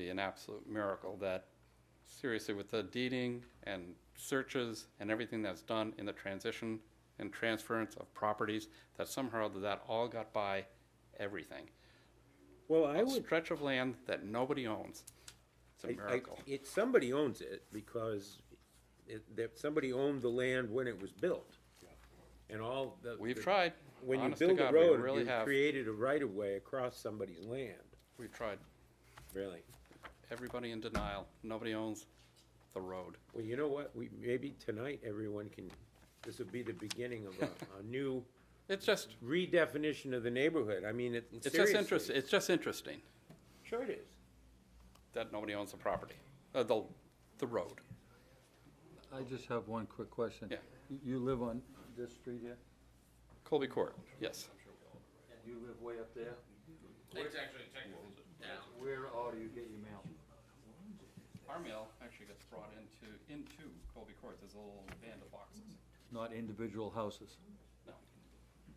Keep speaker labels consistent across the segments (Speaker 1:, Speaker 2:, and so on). Speaker 1: be an absolute miracle that, seriously, with the deeding and searches and everything that's done in the transition and transference of properties, that somehow that all got by everything.
Speaker 2: Well, I
Speaker 1: A
Speaker 2: would,
Speaker 1: stretch of land that nobody owns. It's a
Speaker 2: I- I,
Speaker 1: miracle.
Speaker 2: it, somebody owns it because it, that, somebody owned the land when it was built. And all the.
Speaker 1: We've
Speaker 2: the-
Speaker 1: tried,
Speaker 2: When you
Speaker 1: honest to
Speaker 2: build a
Speaker 1: God, we
Speaker 2: road,
Speaker 1: really
Speaker 2: you
Speaker 1: have,
Speaker 2: created a right of way across somebody's land,
Speaker 1: we've tried.
Speaker 2: really.
Speaker 1: Everybody in denial. Nobody owns the road.
Speaker 2: Well, you know what, we, maybe tonight everyone can, this will be the beginning of a, a new
Speaker 1: It's just,
Speaker 2: redefinition of the neighborhood. I mean, it,
Speaker 1: it's just
Speaker 2: seriously.
Speaker 1: interesting, it's just interesting
Speaker 2: Sure it is.
Speaker 1: that nobody owns the property, uh, the, the road.
Speaker 3: I just have one quick question.
Speaker 1: Yeah.
Speaker 3: You- You live on this street here?
Speaker 1: Colby Court, yes.
Speaker 3: And you live way up there?
Speaker 1: It's actually down.
Speaker 3: Where all do you get your mail?
Speaker 1: Our mail actually gets brought into, into Colby Court, there's a little band of boxes.
Speaker 3: Not individual houses?
Speaker 1: No,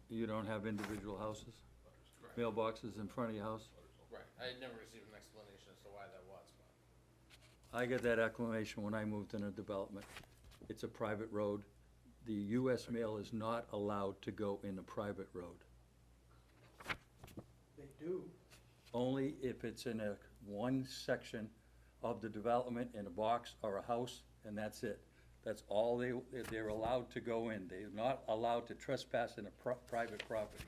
Speaker 3: You don't have individual houses? Mailboxes in front of your house?
Speaker 4: Right, I had never received an explanation as to why that was, but.
Speaker 3: I got that acclamation when I moved in a development. It's a private road. The US mail is not allowed to go in a private road.
Speaker 5: They do.
Speaker 3: Only if it's in a, one section of the development in a box or a house, and that's it. That's all they, they're allowed to go in. They're not allowed to trespass in a pro- private property.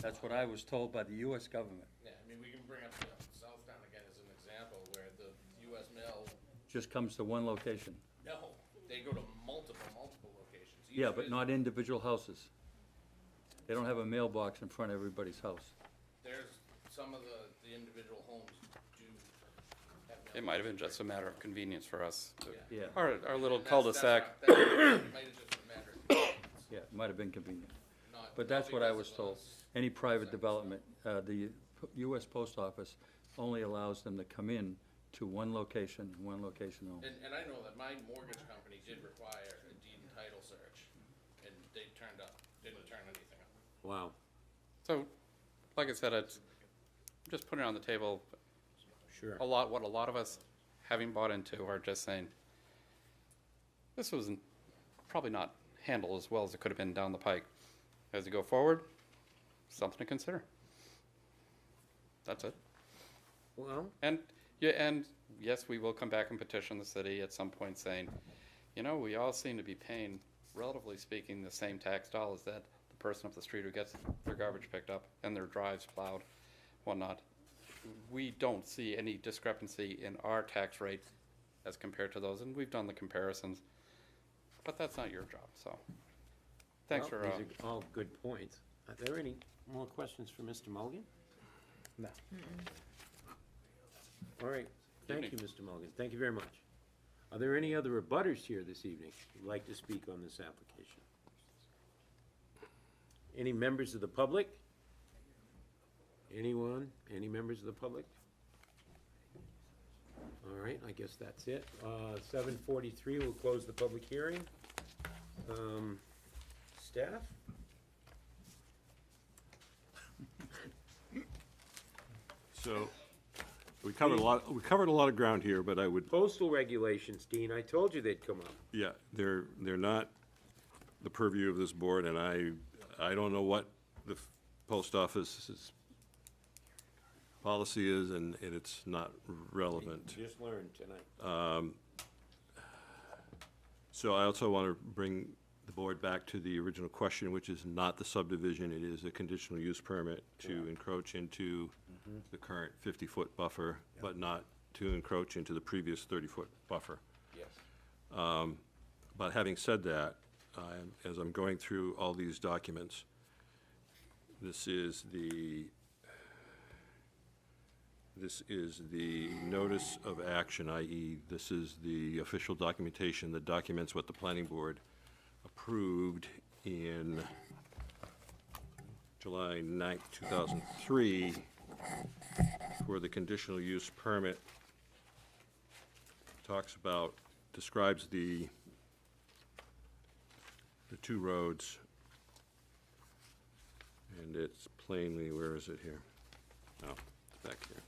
Speaker 3: That's what I was told by the US government.
Speaker 4: Yeah, I mean, we can bring up you know, Southtown again as an example where the US mail,
Speaker 3: Just comes to one location.
Speaker 4: no, they go to multiple, multiple locations. Each
Speaker 3: Yeah, but
Speaker 4: vis-
Speaker 3: not individual houses. They don't have a mailbox in front of everybody's house.
Speaker 4: There's, some of the, the individual homes do have.
Speaker 1: it might have been just a matter of convenience for us. to-
Speaker 3: Yeah.
Speaker 1: Our, our little
Speaker 4: And that's-
Speaker 1: cul-de-sac,
Speaker 4: that's not- that's- It might have just been a matter of convenience,
Speaker 3: Yeah, it might have been convenient.
Speaker 4: not-
Speaker 3: But
Speaker 4: not
Speaker 3: that's what I
Speaker 4: because
Speaker 3: was
Speaker 4: of
Speaker 3: told.
Speaker 4: us.
Speaker 3: Any private development, uh, the p- US Post Office only allows them to come in to one location, one location only.
Speaker 4: And, and I know that my mortgage company did require a deed and title search, and they turned up, didn't turn anything up.
Speaker 2: Wow.
Speaker 1: so, like I said, it's, just putting it on the table,
Speaker 2: Sure.
Speaker 1: a lot, what a lot of us, having bought into, are just saying, this was n- probably not handled as well as it could have been down the pike. As you go forward, something to consider. That's it.
Speaker 2: Well,
Speaker 1: And, yeah, and yes, we will come back and petition the city at some point saying, you know, we all seem to be paying, relatively speaking, the same tax dollars that the person up the street who gets their garbage picked up and their drives plowed, whatnot. We don't see any discrepancy in our tax rate as compared to those, and we've done the comparisons. But that's not your job, so. Thanks
Speaker 2: well,
Speaker 1: for, uh,
Speaker 2: These are all good points. Are there any more questions for Mr. Mulligan? No. All right. Thank you,
Speaker 1: Evening.
Speaker 2: Mr. Mulligan. Thank you very much. Are there any other abutters here this evening who'd like to speak on this application? Any members of the public? Anyone? Any members of the public? All right, I guess that's it. Uh, seven forty-three, we'll close the public hearing. Um, staff?
Speaker 6: So, we covered a lot, we covered a lot of ground here, but I would,
Speaker 2: Postal regulations, Dean, I told you they'd come up.
Speaker 6: yeah, they're, they're not the purview of this board, and I, I don't know what the f- post office's policy is, and, and it's not relevant.
Speaker 2: Just learned tonight.
Speaker 6: So I also want to bring the board back to the original question, which is not the subdivision, it is a conditional use permit to encroach into the current fifty-foot buffer, but not to encroach into the previous thirty-foot buffer.
Speaker 2: Yes.
Speaker 6: Um, But having said that, I'm- as I'm going through all these documents, this is the, this is the notice of action, i.e., this is the official documentation that documents what the planning board approved in July 9th, 2003, for the conditional use permit. Talks about, describes the the two roads. And it's plainly, where is it here? Oh, it's back here.